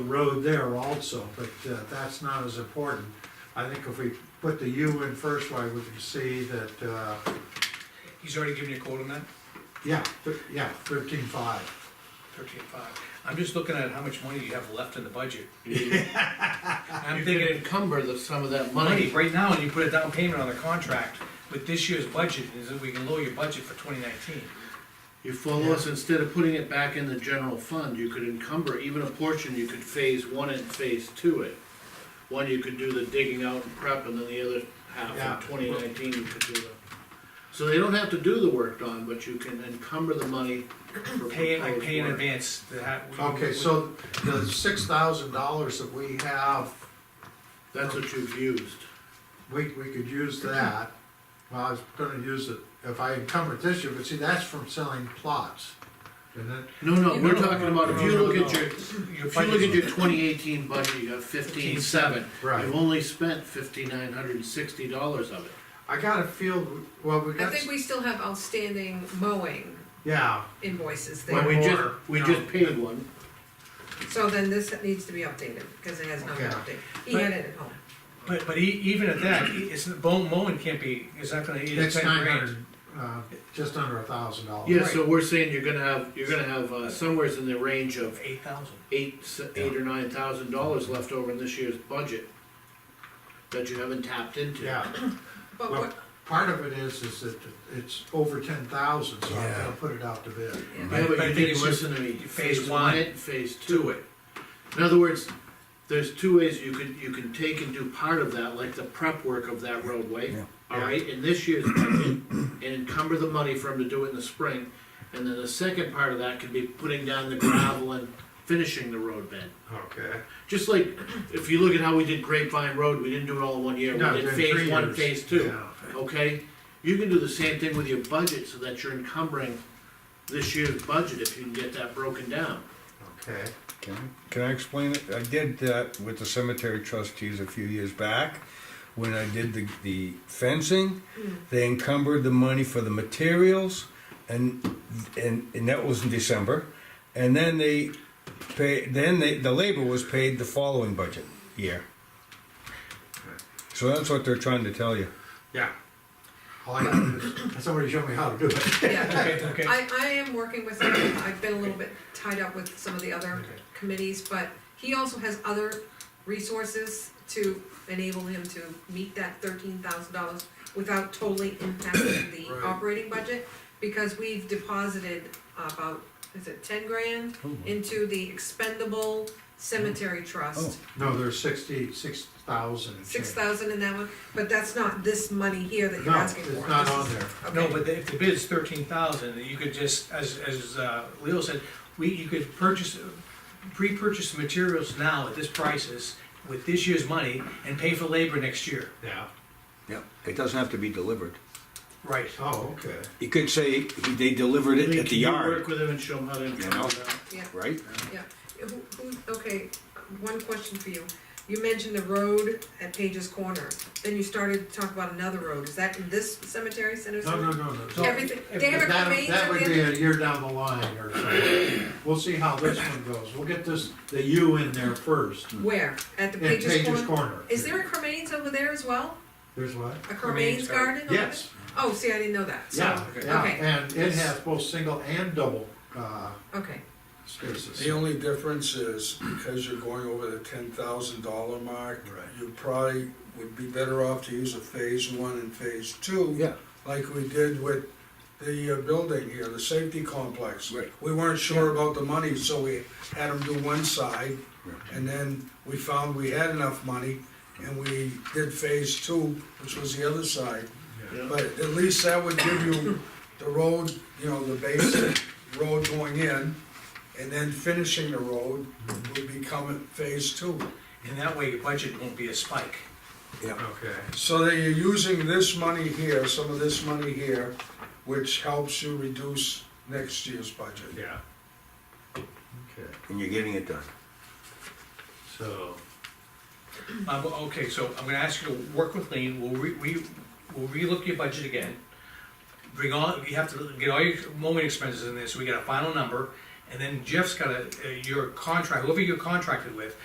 the road there also, but uh, that's not as important. I think if we put the U in first, why we can see that, uh, He's already given you a quote on that, yeah, th- yeah, thirteen five. thirteen five. I'm just looking at how much money you have left in the budget. I'm You could thinking encumber the, some of that money money. right now, and you put a down payment on the contract with this year's budget, is that we can lower your budget for twenty nineteen. You follow us, instead of putting it back in the general fund, you could encumber even a portion, you could phase one and phase two it. One, you could do the digging out and prep, and then the other Yeah. half of twenty nineteen, you could do the. So they don't have to do the work, Don, but you can encumber the money for Pay it, I proposed pay in work. advance, the ha- we- Okay, we- so the six thousand dollars that we have, That's what you've used. we, we could use that. Well, I was gonna use it if I encumbered this year, but see, that's from selling plots. And then, No, no, Yeah, we're no, talking about, if no, you no, look at no. your, Your if you look at budget's your twenty eighteen budget, you have fifteen seven. Right. You've only spent fifty-nine hundred and sixty dollars of it. I gotta feel, well, we I got, think we still have outstanding mowing yeah, invoices Well, there, we just, Or, we no. just paid one. so then this needs to be updated, because it has not been Okay. updated, he had it at home. But, but e- even at that, e- it's, bone mowing can't be, is not gonna, it's it's ten nine grand. hundred, uh, just under a thousand dollars. Yeah, so we're saying you're gonna have, you're gonna have, uh, somewhere's in the range of Eight thousand. eight, s- eight or nine thousand dollars left over in this year's budget that you haven't tapped into. Yeah. But Well, what, Part of it is, is that it's over ten thousand, so I've gotta put it out to bid. Yeah, But I but you think didn't it's just listen to me. phase one. it, Phase two it. In other words, there's two ways you could, you can take and do part of that, like the prep work of that roadway. Alright, in this year's budget, and encumber the money for him to do it in the spring. And then the second part of that could be putting down the gravel and finishing the road bed. Okay. Just like, if you look at how we did Grapevine Road, we didn't do it all in one year, we No, did in phase three one, years. phase two, Yeah. okay? You can do the same thing with your budget, so that you're encumbering this year's budget, if you can get that broken down. Okay, Can I- can I explain it? I did that with the cemetery trustees a few years back. When I did the, the fencing, Mm. they encumbered the money for the materials and, and, and that was in December. And then they pay, then they, the labor was paid the following budget year. So that's what they're trying to tell you. yeah. All I gotta do is, somebody show me how to do it. yeah, Okay, okay. I, I am working with him, I've been a little bit tied up with some of the other committees, but he also has other resources to enable him to meet that thirteen thousand dollars without totally impacting the Right. operating budget, because we've deposited about, is it ten grand Oh, into the expendable cemetery trust. No, there's sixty, six thousand and change. Six thousand in that one, but that's not this money here that you're No, asking for. it's not This on is- there. No, Okay, but if the bid's thirteen thousand, you could just, as, as uh, Leo said, we, you could purchase, pre-purchase the materials now at this prices with this year's money and pay for labor next year. Yeah, Yeah, it doesn't have to be delivered. Right. oh, okay. You could say he- they delivered I it mean, at can the you yard, Work with him and show him how to know? encompass that. yeah, right? yeah. Who, who, okay, one question for you. You mentioned the road at Page's Corner, then you started to talk about another road. Is that in this cemetery, Center No, no, Cemetery? no, no. No, Everything, they have a That, cremains that at would the be end. a year down the line or something. We'll see how this one goes. We'll get this, the U in there first. Where? At the In Page's Page's Corner? Corner. Is there a cremains over there as well? There's what? A cremains garden? over Yes, there? Oh, see, I didn't know that. So- yeah, yeah, Okay. and it has both single and double, uh, Okay, spaces. The only difference is, because you're going over the ten thousand dollar mark, Right. you probably would be better off to use a phase one and phase two. Yeah. Like we did with the uh, building here, the safety complex. Right. We weren't sure about the money, so we had them do one side, Right. and then we found we had enough money, and we did phase two, which was the other side. Yeah. But at least that would give you the road, you know, the basic road going in, and then finishing the road would become phase two. And that way your budget won't be a spike. Okay. So that you're using this money here, some of this money here, which helps you reduce next year's budget. Yeah. Okay, And you're getting it done. so, Um, okay, so I'm gonna ask you to work with Lean, we'll re, we, we'll relook your budget again. Bring all, you have to get all your mowing expenses in there, so we get a final number, And then Jeff's got a, your contract, whoever you're contracted with,